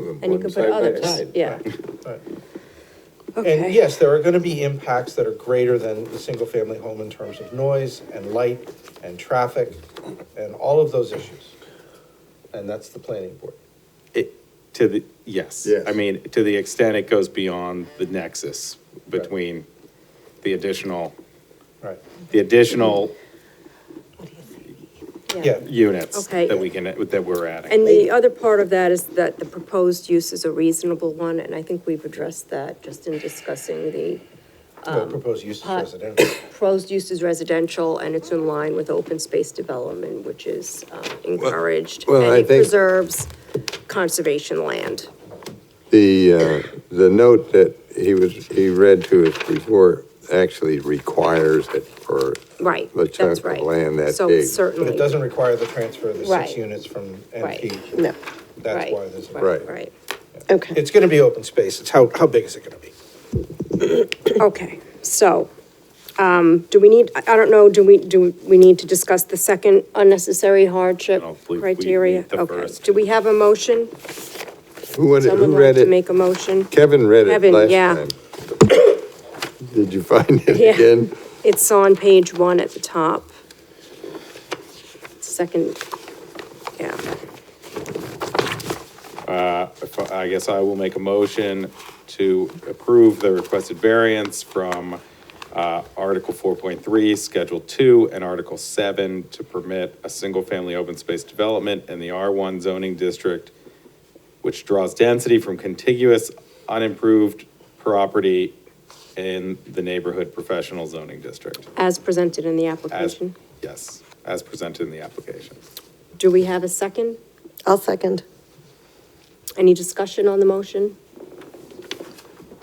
them. And you one can put side by others, side. yeah, Right. And okay. yes, there are gonna be impacts that are greater than the single-family home in terms of noise and light and traffic and all of those issues. And that's the planning board. It, to the, yes. Yes. I mean, to the extent it goes beyond the nexus between the additional, Right. the additional Yeah, units Okay. that we can, that we're adding. And the other part of that is that the proposed use is a reasonable one, and I think we've addressed that just in discussing the well, Um, proposed use is residential. proposed use is residential, and it's in line with open space development, which is um, encouraged. well, I And it think- preserves conservation land. The, uh, the note that he was, he read to us before actually requires it for. Right, The that's chunk of right. land that So big. But certainly. it doesn't require the transfer of the Right. six units from Right. NP. No, That's Right, why there's. a- Right. Right, okay, It's gonna be open space. It's how, how big is it gonna be? okay, so, um, do we need, I I don't know, do we, do we need to discuss the second unnecessary hardship I don't believe we criteria? need the Okay, first. do we have a motion? Who wanted, Someone who like read to make it? a motion? Kevin read it Kevin, last yeah. time. Did you find it Yeah. again? It's on page one at the top. Second, yeah. If I I guess I will make a motion to approve the requested variance from uh, Article 4.3, Schedule 2, and Article 7 to permit a single-family open space development in the R1 zoning district, which draws density from contiguous unimproved property in the neighborhood professional zoning district. As presented in the As, application. yes, as presented in the application. Do we have a second? I'll second. Any discussion on the motion?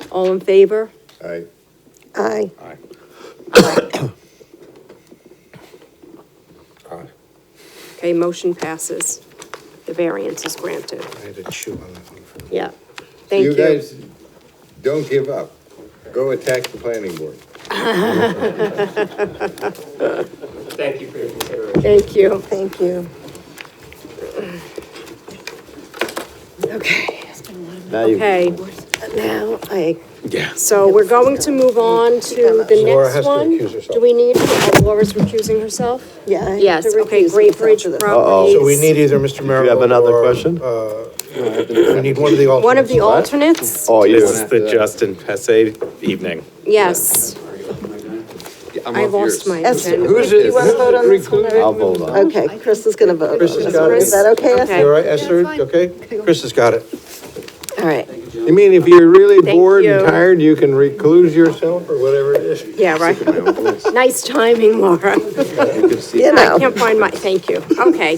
All in favor? I, Aye, Aye. Okay, motion passes. The variance is granted. I had to chew on that one for a minute. Yeah, thank you. guys don't give up. Go attack the planning board. Thank you for your consideration. Thank you. thank you. Okay, Now you- Okay, now I, so we're going to move on to the Laura has next to one. recuse herself. Do we need, oh, Laura's recusing herself? yeah. I have Yes, to okay, recuse Great myself Bridge for this. Properties. So we need either Mr. Merrill. have another or, question? uh, We need one of the alternates. One of the alternates? Oh, you This is the uh, Justin Pesse evening. Yes, I lost my Esther, agenda. Who's do it? you want to vote on this one? Um, I'll or- vote on. Okay, Chris is gonna vote. Chris has got it. Is that okay, Esther? You all right, Esther? Okay? Chris has got it. All right, You mean if you're really Thank bored you. and tired, you can recluse yourself or whatever it is? Yeah, right. Nice timing, Laura. you I know. can't find my, thank you. Okay.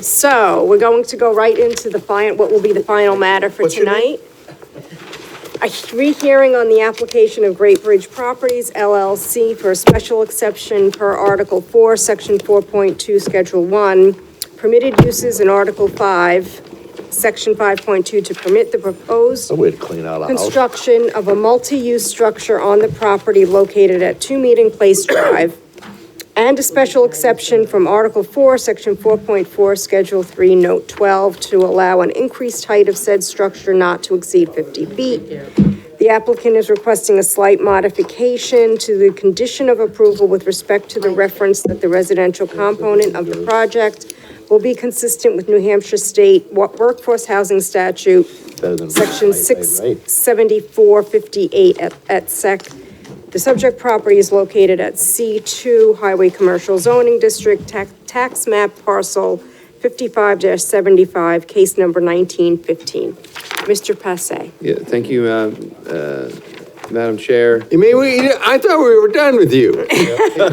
So we're going to go right into the final, what will be the final matter for What's your name? tonight? A rehearing on the application of Great Bridge Properties LLC for a special exception per Article 4, Section 4.2, Schedule 1, permitted uses in Article 5, Section 5.2 to permit the Oh, proposed way to clean out a house. construction of a multi-use structure on the property located at Two Meeting Place Drive, and a special exception from Article 4, Section 4.4, Schedule 3, Note 12, to allow an increased height of said structure not to exceed 50 feet. The applicant is requesting a slight modification to the condition of approval with respect to the reference that the residential component of the project will be consistent with New Hampshire State Wo- Workforce Housing Statute, Better than- Section Right, right, right. 67458 at at SEC. The subject property is located at C2 Highway Commercial Zoning District, tax- tax map parcel 55-75, case number 1915. Mr. Passe. Yeah, thank you, uh, uh, Madam Chair. You mean, we, I thought we were done with you.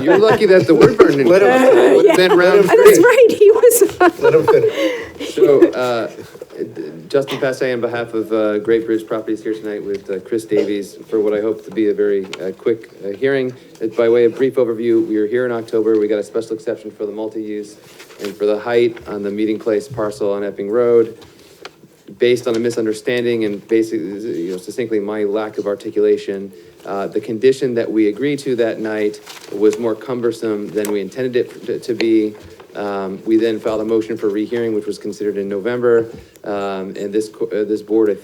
You're lucky that the word burn didn't Let him- would have been round That's three. right, he was, Let him finish. So, uh, Justin Passe on behalf of uh, Great Bridge Properties here tonight with uh, Chris Davies for what I hope to be a very uh, quick uh, hearing. Uh, By way of brief overview, we were here in October, we got a special exception for the multi-use and for the height on the Meeting Place parcel on Epping Road. based on a misunderstanding and basically, you know, succinctly my lack of articulation, uh, the condition that we agreed to that night was more cumbersome than we intended it to- to be. Um, We then filed a motion for rehearing, which was considered in November. Um, And this, co- uh, this board, I think.